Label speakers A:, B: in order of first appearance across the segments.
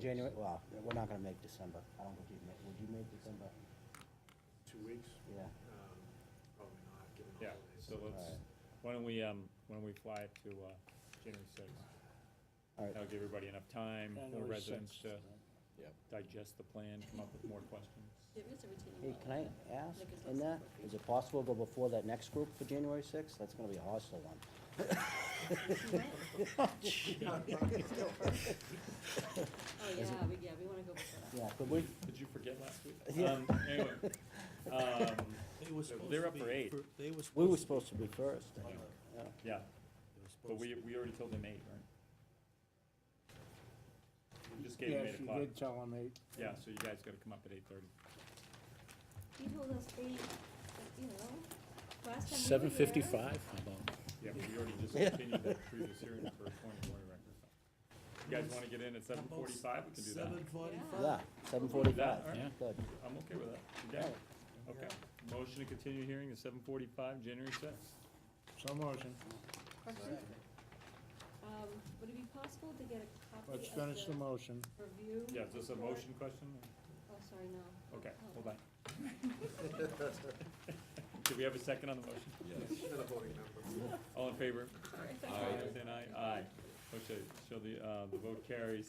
A: January, well, we're not gonna make December. I don't think you'd make, would you make December?
B: Two weeks?
A: Yeah.
B: Um, Probably not, given the
C: Yeah,
B: holidays.
C: so let's,
A: Alright.
C: why don't we, um, why don't we fly it to, uh, January sixth?
A: Alright.
C: That'll give everybody enough time for
D: January
C: residents to
D: 6th.
C: digest the plan, come up with more questions.
E: There is a retaining
A: Hey,
E: wall.
A: can I ask in that, is it possible to go before that next group for January sixth? That's gonna be a hostile one.
E: Oh, yeah, we, yeah, we wanna go before that.
A: Yeah, could we,
C: Did you forget last week?
A: Yeah.
C: Um, anyway, um,
F: They were supposed
C: They're
F: to
C: up
F: be
C: for eight.
F: fir- They were supposed to.
A: we were
F: be-
A: supposed to be first, I think.
C: yeah,
A: Yeah.
F: they were
C: but
F: supposed
C: we,
F: to be.
C: we already told them eight, right? We just gave them
D: Yes,
C: eight
D: you
C: o'clock.
D: did tell him eight.
C: Yeah, so you guys gotta come up at eight thirty.
E: You told us eight, but, you know, last time.
G: Seven fifty-five, how about?
C: Yeah, but we already just continued that previous hearing for a twenty-twenty record. You guys wanna get in at
F: How
C: seven
F: about
C: forty-five, we can do that.
F: Seven forty-five?
A: Yeah, seven forty-five,
C: That, all
G: right.
A: good.
C: I'm okay with that. You got it. Okay. Motion to continue hearing is seven forty-five, January sixth.
D: So motion.
E: Question? Um, would it be possible to get a copy of
D: Let's finish the
E: the
D: motion.
E: review?
C: Yeah, is this a
E: report?
C: motion question?
E: Oh, sorry, no.
C: Okay, hold on. Do we have a second on the motion?
B: You're not a voting member.
C: All in favor?
E: Sorry.
C: Then aye, aye. Okay, so the, uh, the vote carries,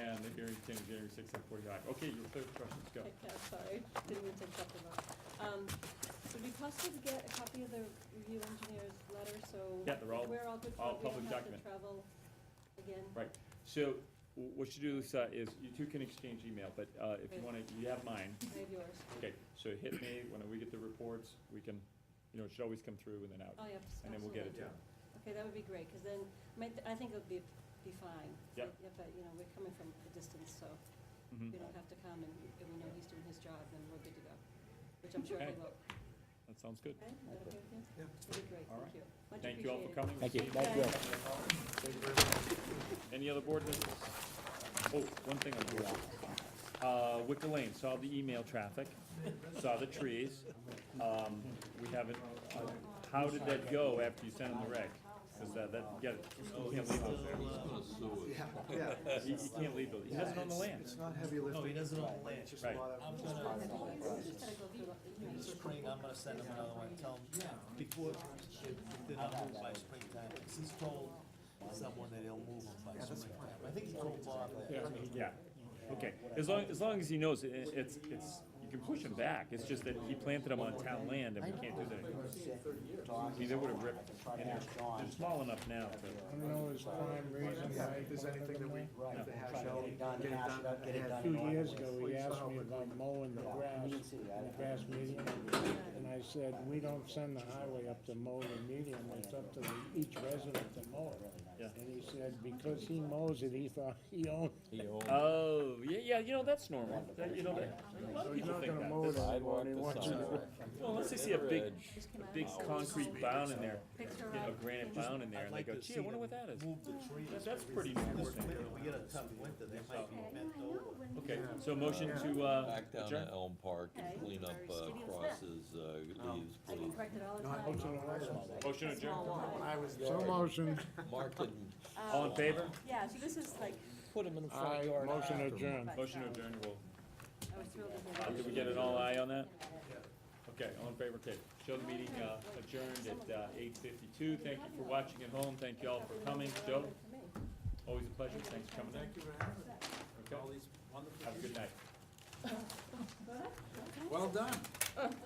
C: and the hearing continues January sixth at forty-five. Okay, your third question, go.
E: Okay, sorry, didn't mean to interrupt the vote. Um, would it be possible to get a copy of the review engineer's letter, so.
C: Yeah, they're all-
E: We're all good,
C: all
E: for it,
C: public
E: we don't have to
C: document.
E: travel again.
C: Right, so w- what you do, Lisa, is you two can exchange email, but, uh, if you wanna, you have mine.
E: I have yours.
C: Okay, so hit me, when we get the reports, we can, you know, it should always come through and then out,
E: Oh, yeah,
C: and then we'll get it to you.
E: absolutely.
B: Yeah.
E: Okay, that would be great, because then, might, I think it'll be, be fine.
C: Yep.
E: but, you know, we're coming from a distance, so
C: Mhm.
E: we don't have to come, and if we know he's doing his job, then we're good to go, which I'm sure he
C: Okay.
E: will.
C: That sounds good.
E: Okay, is that okay with you?
B: Yeah.
E: That'd be great,
C: All
E: thank you. Much
C: Thank you all for
E: appreciated.
C: coming.
A: Thank you,
C: Steve,
A: thank you.
C: Any other board business? Oh, one thing on board. Uh, Wicker Lane, saw the email traffic, saw the trees. Um, we haven't, uh, how did that go after you sent him the reg? Cause uh, that, yeah, you can't leave those there.
B: Yeah, yeah.
C: You you can't leave those, he doesn't own the
F: it's-
C: land. Oh,
B: It's not heavy
F: No, he
B: lifting,
F: doesn't own the land.
B: it's just a
C: Right.
B: lot of.
F: I'm
B: it's
F: gonna-
B: part of the whole
E: You
B: process.
E: just gotta go through the- you know,
F: This spring, I'm gonna send him another one, tell him, before, then I'll move by springtime, because he's told someone that he'll move him by springtime. I think he told Bob that.
C: Yeah, okay, as long, as long as he knows it, it- it's, it's, you can push him back, it's just that he planted them on town land and we can't do that anymore. See, they would have ripped in there, they're small enough now
D: I
C: to,
D: don't know his prime reason
B: Yeah,
D: why.
B: if there's anything that we have to hash
A: Try to
B: out,
A: get it done,
B: get it
A: hash it
B: done
A: out, get it
B: ahead.
A: done.
D: Two
A: Well,
D: years
A: you
D: ago, he asked me about mowing the grass, the grass median, and I said, we don't send the highway up to mow the median, it's up to the- each resident to mow it.
C: Yeah.
D: And he said, because he mows it, he thought he owned it.
C: oh, yeah, yeah, you know, that's normal, That- you know, that- a lot
D: So
C: of
D: he's
C: people
D: not
C: think
D: gonna
C: that.
D: mow it
C: That's-
D: anymore, and he
G: Sidewalk,
D: wants
G: the
D: you to.
C: Well, unless they see a big,
E: just come
C: a
E: out.
C: big concrete bound in there,
E: Picture
C: you know, a
E: out.
C: granite bound in there,
F: I'd
C: and they
F: like
C: go,
F: to
C: gee,
F: see
C: I wonder
F: them
C: what that is.
F: Move the trees.
C: That- That's pretty normal.
F: This winter, we get a tough winter, they might be bent over.
C: Okay, so motion to, uh,
H: Back down
C: adjourn?
H: to Elm Park
E: Okay.
H: and clean up
E: Very
H: uh,
E: skinny Oh. and
H: crosses, uh, leaves,
E: I get
H: please.
E: corrected all the
B: No, I-
E: time.
C: motion adjourned,
B: When I was
D: So motion,
H: Mark didn't
C: all in favor?
E: Yeah, so this is like, uh,
G: Put them in the
D: aye,
G: front yard.
D: motion adjourned.
C: Motion adjourned, well,
E: I was thrilled to hear
C: uh,
E: that.
C: did we get an all eye on that? Okay, all in favor, okay. Show the meeting uh, adjourned at eight fifty-two. Thank you for watching at home. Thank you all for coming. Joe, always a pleasure. Thanks for coming
B: Thank you
C: in.
B: for having me.
C: Okay,
B: All these wonderful.
C: have a good night.
B: Well done.